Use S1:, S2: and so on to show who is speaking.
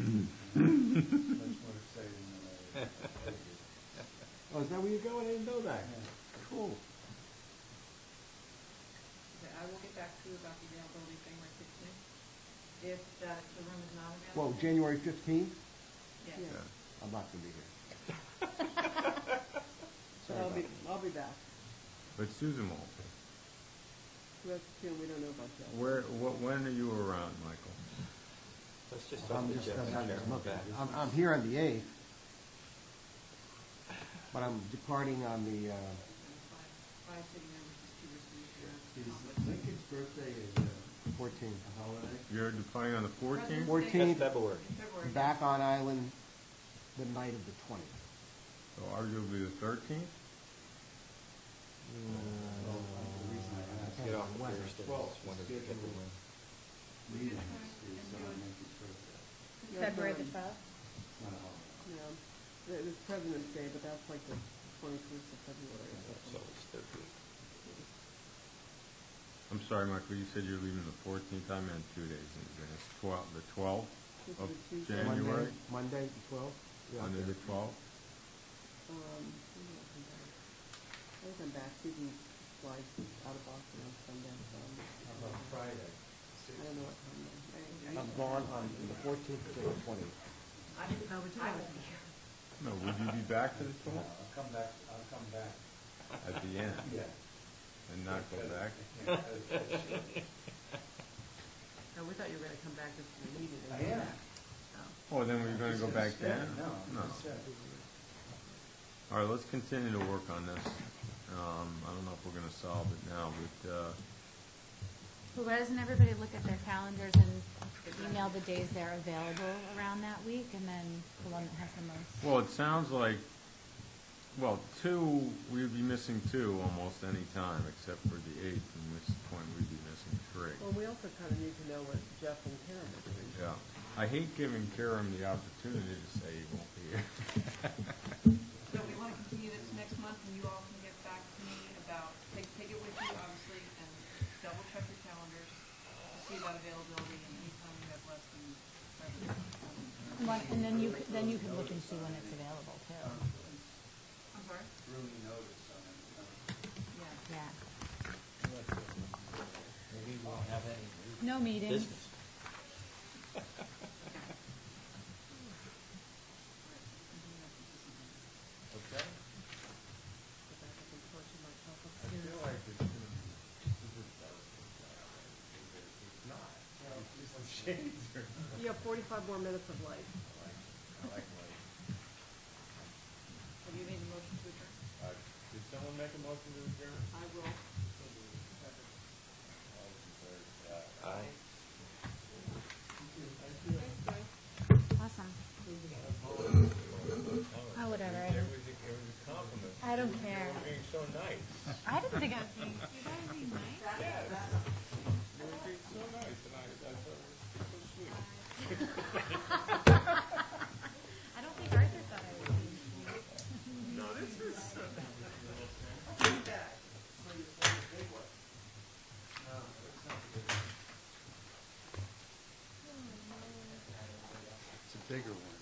S1: much more exciting than I figured.
S2: Oh, is that where you're going? I didn't know that. Cool.
S3: Okay, I will get back to you about the availability thing right this minute. If that, the room is not
S2: Well,
S3: available.
S2: January fifteenth,
S3: Yes.
S4: Yeah.
S2: I'm not gonna be here.
S4: But
S2: Sorry
S4: I'll be,
S2: about
S4: I'll be back.
S5: But Susan won't.
S4: That's, you know, we don't know about that.
S5: Where, what, when are you around, Michael?
S6: Let's just
S2: I'm
S6: talk to
S2: just-
S6: Jeff
S2: I'm
S6: and
S2: not
S6: Sharon
S2: looking.
S6: back.
S2: I'm, I'm here on the eighth, but I'm departing on the, uh,
S3: Five, five city members is two weeks later.
S1: Is Lincoln's birthday is uh,
S2: fourteenth.
S1: a holiday?
S5: You're departing on the fourteenth?
S3: President's
S2: Fourteenth.
S3: Day
S6: That's February.
S3: in February.
S2: Back on island the night of the twentieth.
S5: So Oh, arguably the thirteenth?
S1: the reason I asked-
S6: Get off the Thursday.
S1: Well,
S6: Just wondered if
S1: schedule.
S6: everyone-
S1: Leaving is on Lincoln's birthday.
S7: February the
S4: um,
S7: 12th?
S1: It's not a holiday.
S4: Yeah, It was President's Day, but that's like the twenty-first of February or
S6: So
S4: something.
S6: it's thirteen.
S5: I'm sorry, Michael, you said you're leaving the fourteenth, I meant two days in advance, twelve, the twelfth
S4: This is
S5: of
S4: a Tuesday.
S5: January,
S2: Monday- Monday, the twelfth?
S5: under the twelfth?
S4: Um, maybe I'll come back. I'll come back, Susan flies out of Boston on Sunday, so I'm,
S1: How about Friday?
S4: I don't know what time then. I- I-
S2: I'm gone on the fourteenth to the twentieth.
S3: I didn't, I won't be here.
S5: No, would you be back to the
S1: Uh,
S5: twelfth?
S1: I'll come back, I'll come back,
S5: At the end,
S1: yeah.
S5: and not go back?
S1: Yeah, that's-
S4: Oh, we thought you were gonna come back just for the meeting.
S1: I am.
S5: Oh, then we're gonna go back then?
S1: No, I'm just saying.
S5: All right, let's continue to work on this. Um, I don't know if we're gonna solve it now, but, uh,
S7: Well, why doesn't everybody look at their calendars and email the days they're available around that week, and then the one that has the most?
S5: well, it sounds like, well, two, we'd be missing two almost any time, except for the eighth, in which point we'd be missing
S4: Well,
S5: three.
S4: we also kinda need to know what Jeff and Karen are doing.
S5: Yeah. I hate giving Kiram the opportunity to say he won't be here.
S3: So we want to continue this next month, and you all can get back to me about, take, take it with you, obviously, and double check your calendars, see about availability, and anytime you have less than seven.
S7: And one- And then you, could- then you can look and see when it's available, too.
S3: I'm sorry?
S1: Really notice on it. you know.
S3: Yeah.
S7: Yeah.
S6: Maybe we won't have any
S7: No meetings.
S6: business. Okay.
S4: Go back up and torture myself up
S1: I
S4: here.
S1: feel like it's gonna be- this is a- it's not. It's just some shades or
S4: You have forty-five more minutes of life.
S1: like, I like my,
S3: Have you made a motion to adjourn?
S1: uh, did someone make a motion to adjourn?
S3: I
S1: All
S3: will.
S1: those in favor? Uh,
S6: Aye.
S3: Thanks, guys.
S7: Awesome. Oh, whatever. I don't-
S5: was a, it was a compliment.
S7: I don't care.
S5: being so nice.
S7: I didn't think I was being, you guys being
S5: You were
S7: nice.
S5: being so nice, and I, I thought it was so sweet.
S7: I don't think Arthur thought I was being nice.
S1: It's a bigger one.